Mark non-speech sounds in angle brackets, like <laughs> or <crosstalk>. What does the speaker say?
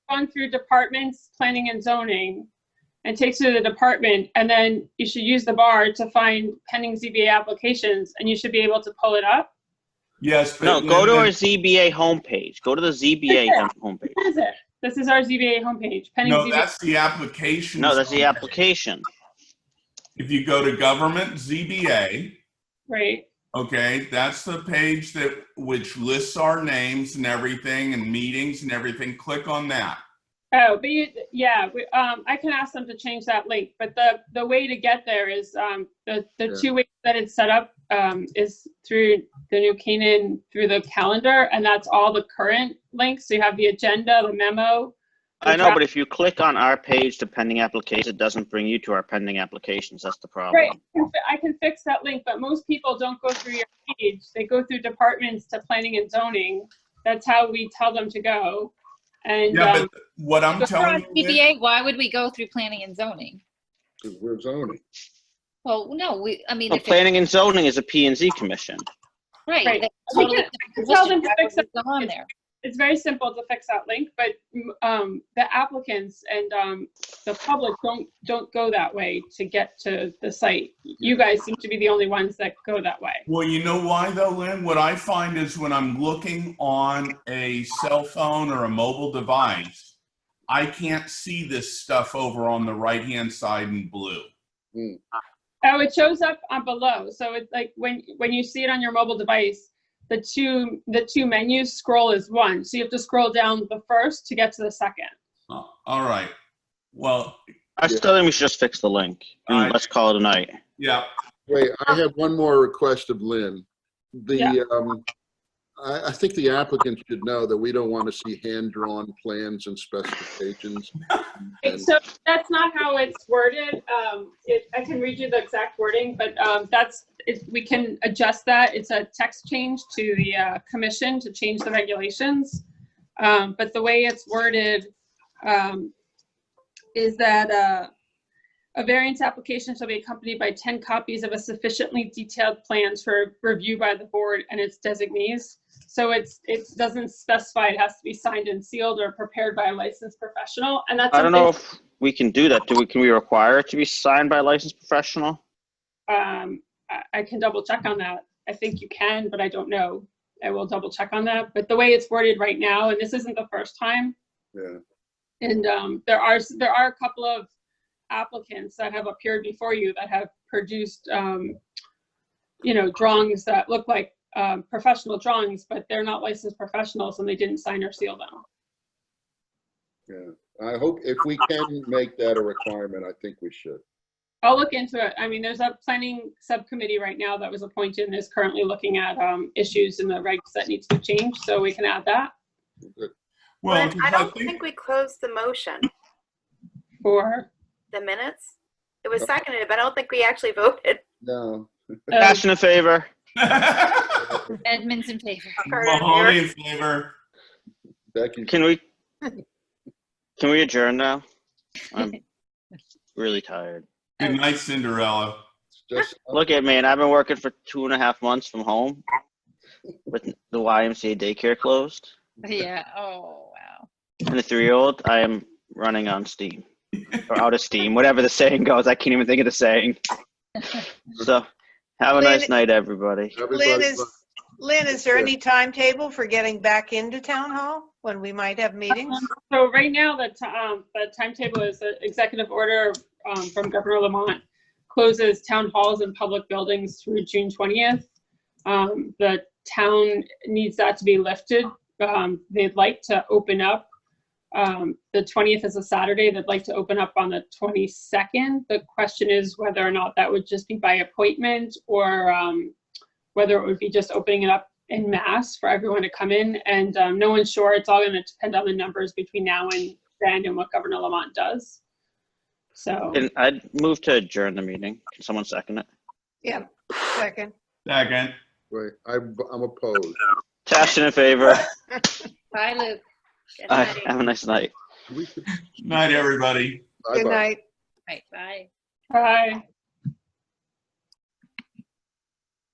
down through departments, planning and zoning, and takes you to the department, and then you should use the bar to find pending ZBA applications, and you should be able to pull it up. Yes. but- No, go to our ZBA homepage. Go to the ZBA Yeah. homepage. What is it? This is our ZBA homepage, pending No, ZBA. that's the application. No, that's the application. If you go to government ZBA, Right, okay, that's the page that, which lists our names and everything and meetings and everything. Click on that. oh, but you, yeah, we, um, I can ask them to change that link, but the, the way to get there is, um, the, the Yeah. two ways that it's set up, um, is through the New Canaan, through the calendar, and that's all the current links, so you have the agenda, the memo. I know, but if you click on our page to pending applications, it doesn't bring you to our pending applications. That's the problem. Right, I can fi- I can fix that link, but most people don't go through your page. They go through departments to planning and zoning. That's how we tell them to go. And, Yeah, um, but what I'm If we're on telling you. is- CBA, why would we go through planning and zoning? because we're zoning. Well, no, we, I mean, Well, if it's, planning and zoning is a P and Z commission. right. Right. that's We totally can- different can tell them position. to Why fix would we go on there. it's very simple to fix that link, but, mm, um, the applicants and, um, the public don't, don't go that way to get to the site. You guys seem to be the only ones that go that way. Well, you know why though, Lynn? What I find is when I'm looking on a cell phone or a mobile device, I can't see this stuff over on the right-hand side in blue. Oh, it shows up on below. So it's like when, when you see it on your mobile device, the two, the two menus scroll as one. So you have to scroll down the first to get to the second. Uh, All right. Well, I still think we should just fix the link. All right. Mm, Let's call it a night. yeah, Wait, I have one more request of Lynn. Yeah. The, um, I, I think the applicant should know that we don't want to see hand-drawn plans and specifications. Right, So that's not how it's worded. Um, it, I can read you the exact wording, but, um, that's, if we can adjust that. It's a text change to the, uh, commission to change the regulations. Um, but the way it's worded, um, is that, uh, a variance application shall be accompanied by ten copies of a sufficiently detailed plans for review by the board and its designees. So it's, it doesn't specify it has to be signed and sealed or prepared by a licensed professional, and that's. I don't something- know if we can do that. Do we, can we require it to be signed by a licensed professional? Um, I, I can double check on that. I think you can, but I don't know. I will double check on that. But the way it's worded right now, and this isn't the first time, Yeah. and, um, there are, s- there are a couple of applicants that have appeared before you that have produced, um, you know, drawings that look like, um, professional drawings, but they're not licensed professionals and they didn't sign or seal them. I hope, if we can make that a requirement, I think we should. I'll look into it. I mean, there's a planning subcommittee right now that was appointed and is currently looking at, um, issues in the regs that need to be changed, so we can add that well, But 'cause I I don't think, think we closed the motion, for, the minutes. It was seconded, but I don't think we actually <laughs> voted. No, uh, Cast in favor? <laughs> Edmonds in favor. Carter, Mahoney in you're- favor. Becky, <laughs> Can we, can we adjourn now? I'm <laughs> really tired. Good night, Cinderella. just, Look at me, and I've been working for two and a half months from home with the YMCA daycare closed <laughs> Yeah, oh, wow. and the three-year-old. I am running on steam or out of steam, whatever the saying goes. I can't even think of the <laughs> saying. So, have a nice night, everybody. Lynn everybody's, is, Lynn, is there Yeah. any timetable for getting back into town hall when we might have meetings? So right now, the, ti- um, the timetable is the executive order, um, from Governor Lamont closes town halls and public buildings through June twentieth. Um, the town needs that to be lifted. Um, they'd like to open up. Um, the twentieth is a Saturday. They'd like to open up on the twenty-second. The question is whether or not that would just be by appointment or, um, whether it would be just opening it up in mass for everyone to come in. And um, no one's sure. It's all going to depend on the numbers between now and then and what Governor Lamont does. So, And I'd move to adjourn the meeting. Can someone second it? Yeah, second. Second. wait, I'm, I'm opposed. Cast in favor. Bye, Luke. Good All right, night. have a nice night. We should- Night, everybody. Good bye-bye. night. Right, bye. bye.